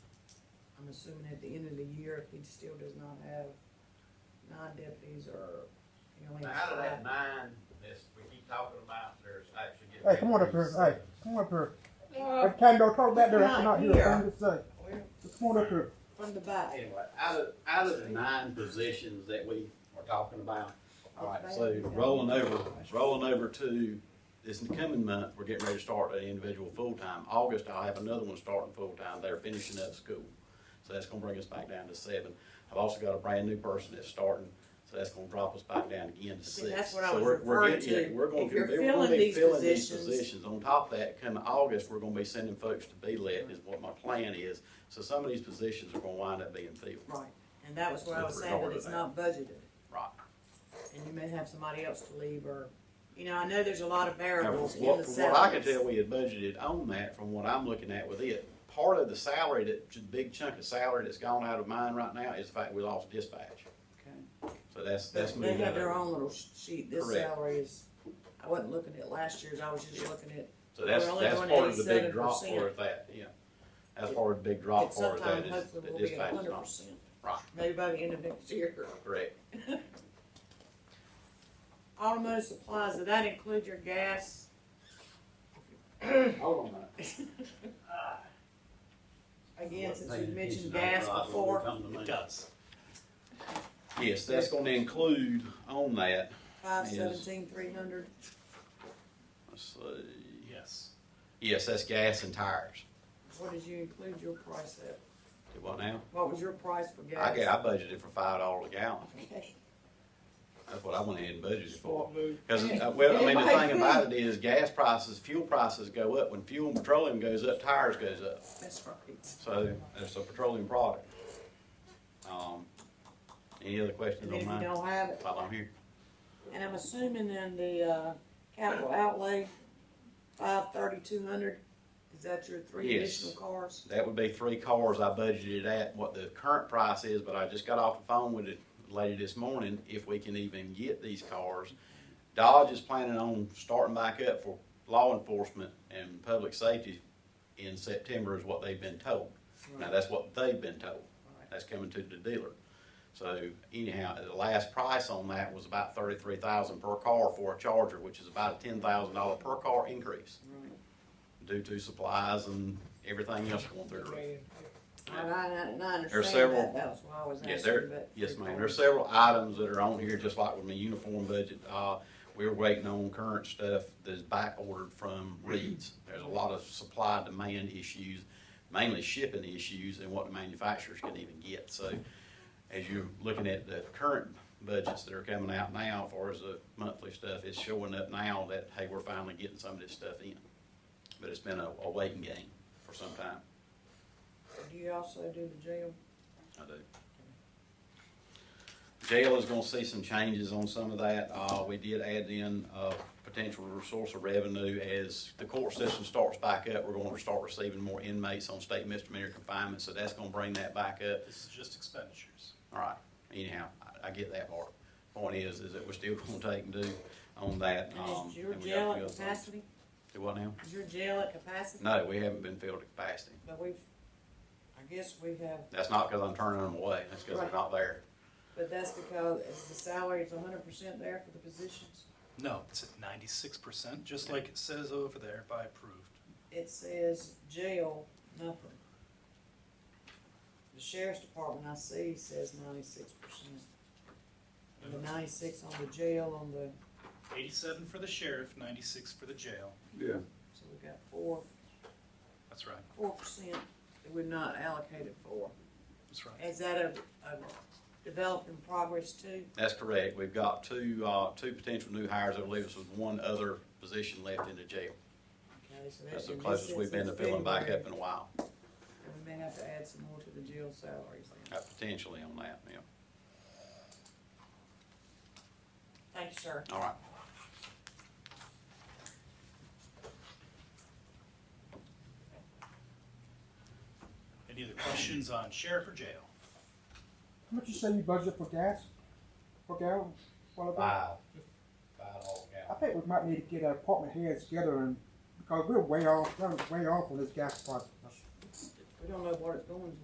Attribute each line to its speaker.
Speaker 1: assuming at the end of the year, if he still does not have nine deputies or, you know, he has
Speaker 2: Out of
Speaker 1: five.
Speaker 2: that nine, this, we keep talking about, there's actually getting.
Speaker 3: Hey, come on up here. Hey, come up here. Hey, Tando, talk back there. I cannot hear a thing you say.
Speaker 1: Well,
Speaker 3: Just Come on up here.
Speaker 1: From the back.
Speaker 2: Anyway, out of, out of the nine positions that we are talking about, all right, so rolling over, rolling over to this coming month, we're getting ready to start an individual full-time. August, I'll have another one starting full-time. They're finishing up school. So that's gonna bring us back down to seven. I've also got a brand-new person that's starting, so that's gonna drop us back down again to
Speaker 1: See,
Speaker 2: six.
Speaker 1: that's what I
Speaker 2: So
Speaker 1: was
Speaker 2: we're- we're
Speaker 1: referring
Speaker 2: getting- yeah,
Speaker 1: to.
Speaker 2: We're gonna,
Speaker 1: If
Speaker 2: be-
Speaker 1: you're
Speaker 2: we're gonna
Speaker 1: filling
Speaker 2: be
Speaker 1: these
Speaker 2: filling these
Speaker 1: positions-
Speaker 2: positions. On top of that, come August, we're gonna be sending folks to BLET is what my plan is. So some of these positions are gonna wind up being filled.
Speaker 1: Right, and that was what I was saying, that it's not budgeted,
Speaker 2: Right.
Speaker 1: and you may have somebody else to leave, or, you know, I know there's a lot of
Speaker 2: Now,
Speaker 1: variables
Speaker 2: from
Speaker 1: in
Speaker 2: what,
Speaker 1: the
Speaker 2: from what I can
Speaker 1: salaries.
Speaker 2: tell, we had budgeted on that from what I'm looking at with it. Part of the salary, that, the big chunk of salary that's gone out of mine right now is the fact we lost dispatch. So that's, that's
Speaker 1: They
Speaker 2: moving
Speaker 1: have their
Speaker 2: over.
Speaker 1: own little sheet, this
Speaker 2: Correct.
Speaker 1: salary is, I wasn't looking at last year's, I was just looking at,
Speaker 2: So that's,
Speaker 1: We're only
Speaker 2: that's
Speaker 1: going
Speaker 2: part of the big drop
Speaker 1: 87%.
Speaker 2: for it, that, yeah. That's part of the big drop
Speaker 1: at
Speaker 2: for
Speaker 1: some
Speaker 2: it, that
Speaker 1: time,
Speaker 2: is,
Speaker 1: hopefully
Speaker 2: the
Speaker 1: we'll be at
Speaker 2: dispatch is
Speaker 1: hundred
Speaker 2: gone.
Speaker 1: percent,
Speaker 2: Right,
Speaker 1: maybe by the end of next year.
Speaker 2: correct.
Speaker 1: Automotive supplies, did that include your gas?
Speaker 2: Hold on a minute.
Speaker 1: Again, since you mentioned gas before,
Speaker 4: It does.
Speaker 2: Yes, that's gonna include on that,
Speaker 1: five
Speaker 2: Yes.
Speaker 1: seventeen, three hundred,
Speaker 2: let's see,
Speaker 4: Yes.
Speaker 2: yes, that's gas and tires.
Speaker 1: what did you include your price at?
Speaker 2: Do what now?
Speaker 1: What was your price for gas?
Speaker 2: I got, I budgeted for five dollars a gallon.
Speaker 1: Okay.
Speaker 2: That's what I went ahead and budgeted for. Because, well, I mean, the thing about it is gas prices, fuel prices go up. When fuel and petroleum goes up, tires goes up.
Speaker 1: That's right.
Speaker 2: So it's a petroleum product. Um, any other questions
Speaker 1: And if
Speaker 2: on
Speaker 1: you
Speaker 2: mine
Speaker 1: don't have it,
Speaker 2: while I'm here?
Speaker 1: and I'm assuming in the, uh, capital outlay, five thirty, two hundred, is that your three
Speaker 2: Yes.
Speaker 1: additional cars?
Speaker 2: That would be three cars I budgeted at what the current price is, but I just got off the phone with the lady this morning, if we can even get these cars. Dodge is planning on starting back up for law enforcement and public safety in September is what they've been told. Now, that's what they've been told. That's coming to the dealer. So anyhow, the last price on that was about thirty-three thousand per car for a Charger, which is about a ten thousand dollar per car increase
Speaker 1: Right.
Speaker 2: due to supplies and everything else going through the roof.
Speaker 1: I, I, and I
Speaker 2: There's
Speaker 1: understand
Speaker 2: several-
Speaker 1: that, that was why I was
Speaker 2: Yeah,
Speaker 1: asking,
Speaker 2: there-
Speaker 1: but.
Speaker 2: Yes, ma'am. There's several items that are on here, just like with my uniform budget. Uh, we're waiting on current stuff that's back ordered from Reed's. There's a lot of supply demand issues, mainly shipping issues and what the manufacturers can even get. So as you're looking at the current budgets that are coming out now, as far as the monthly stuff, it's showing up now that, hey, we're finally getting some of this stuff in. But it's been a, a waiting game for some time.
Speaker 1: Do you also do the jail?
Speaker 2: I do. Jail is gonna see some changes on some of that. Uh, we did add in, uh, potential source of revenue as the court system starts back up. We're gonna start receiving more inmates on state misdemeanor confinement, so that's gonna bring that back up.
Speaker 4: This is just expenditures.
Speaker 2: All right, anyhow, I, I get that part. Point is, is that we're still gonna take and do on that. um,
Speaker 1: And is your
Speaker 2: and we got a
Speaker 1: jail
Speaker 2: few
Speaker 1: at
Speaker 2: other things.
Speaker 1: capacity?
Speaker 2: Do what now?
Speaker 1: Is your jail at capacity?
Speaker 2: No, we haven't been filled to capacity.
Speaker 1: But we've, I guess we have,
Speaker 2: That's not because I'm turning them away, that's because they're
Speaker 1: Right.
Speaker 2: not there.
Speaker 1: but that's because is the salary is hundred percent there for the positions?
Speaker 4: No, it's at ninety-six percent, just like it says over there by approved.
Speaker 1: It says jail, nothing. The sheriff's department I see says ninety-six percent. And the ninety-six on the jail on the,
Speaker 4: Eighty-seven for the sheriff, ninety-six for the jail.
Speaker 2: Yeah.
Speaker 1: so we got four,
Speaker 4: That's right,
Speaker 1: four percent that we're not allocated for.
Speaker 4: that's right.
Speaker 1: Is that a, a developed in progress too?
Speaker 2: That's correct. We've got two, uh, two potential new hires. I believe this was one other position left in the jail.
Speaker 1: Okay, so
Speaker 2: That's the closest we've been to filling back up in a while,
Speaker 1: And we may have to add some more to the jail salaries then.
Speaker 2: uh, potentially on that, yeah.
Speaker 1: Thank you, sir.
Speaker 2: All right.
Speaker 4: Any other questions on sheriff or jail?
Speaker 3: How much you say you budget for gas? Per gallon? What
Speaker 4: Uh,
Speaker 3: about?
Speaker 2: Five all
Speaker 3: I think we might need to get our department heads together and, because we're way off, we're way off on this gas price.
Speaker 1: We don't know what it's going to.